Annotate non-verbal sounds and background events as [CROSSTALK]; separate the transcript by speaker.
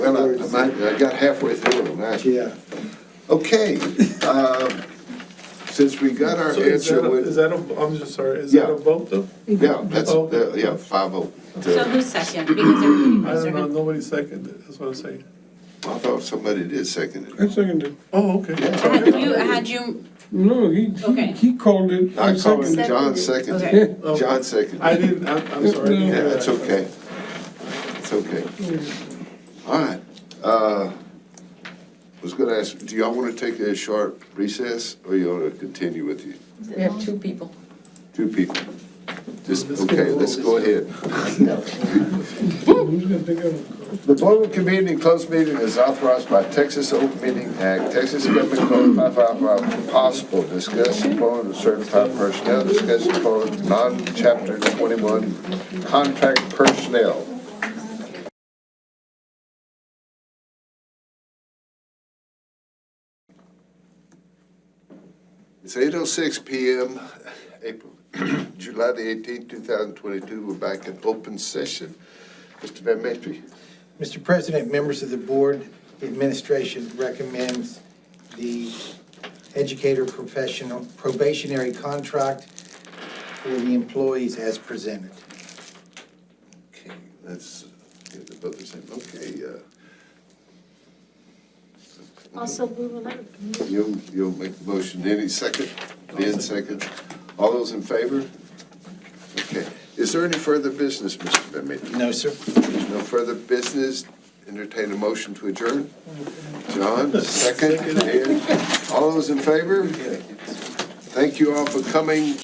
Speaker 1: got, a- I might- I got halfway through them, actually.
Speaker 2: Yeah.
Speaker 1: Okay, um, since we got our
Speaker 3: So is that,
Speaker 1: answer
Speaker 3: a- is
Speaker 1: with,
Speaker 3: that a, I'm just sorry, is that
Speaker 1: Yeah.
Speaker 3: a vote though?
Speaker 1: yeah, that's,
Speaker 3: Oh.
Speaker 1: uh, yeah, five oh.
Speaker 4: So who's second? Because everybody
Speaker 3: I
Speaker 4: was
Speaker 3: don't know,
Speaker 4: second.
Speaker 3: nobody seconded, it, that's what I'm saying.
Speaker 1: I thought somebody did second it.
Speaker 5: I seconded.
Speaker 3: Oh, okay.
Speaker 4: Had you, had you,
Speaker 5: No, he,
Speaker 4: Okay.
Speaker 5: he, he called it.
Speaker 1: I called it,
Speaker 5: seconded.
Speaker 1: John
Speaker 4: Okay.
Speaker 1: seconded,
Speaker 5: Yeah.
Speaker 3: Okay.
Speaker 1: John seconded.
Speaker 3: Oh. I didn't, I'm, I'm sorry. I didn't
Speaker 5: Yeah,
Speaker 1: Yeah,
Speaker 3: hear
Speaker 1: that's
Speaker 3: that.
Speaker 1: okay. It's okay. All right. Uh, Was gonna ask, do y'all wanna take a short recess, or you wanna continue with you,
Speaker 6: We have two people.
Speaker 1: two people? Just,
Speaker 3: Let's get
Speaker 1: okay,
Speaker 3: a roll.
Speaker 1: let's go ahead.
Speaker 5: Who's gonna think of it?
Speaker 1: The board will convene in closed meeting as authorized by Texas Open Meeting Act, Texas Government Code 555, for possible discussion upon of certified personnel, discussion upon non-chapter 21 contract personnel. It's 8:06 PM, April, [CLEARS THROAT] July the 18th, 2022. We're back in open session. Mr. Van Matry.
Speaker 7: Mr. President, members of the board, the administration recommends the educator professional probationary contract for the employees as presented.
Speaker 1: Okay, that's, yeah, they're both the same, okay, uh,
Speaker 8: Also, we will let
Speaker 1: you'll, you'll make the motion, any second, Dan second, all those in favor? Okay, is there any further business, Mr. Van Matry?
Speaker 7: No, sir.
Speaker 1: There's no further business, entertain a motion to adjourn? John, second, Dan, all those in favor? Thank you all for coming.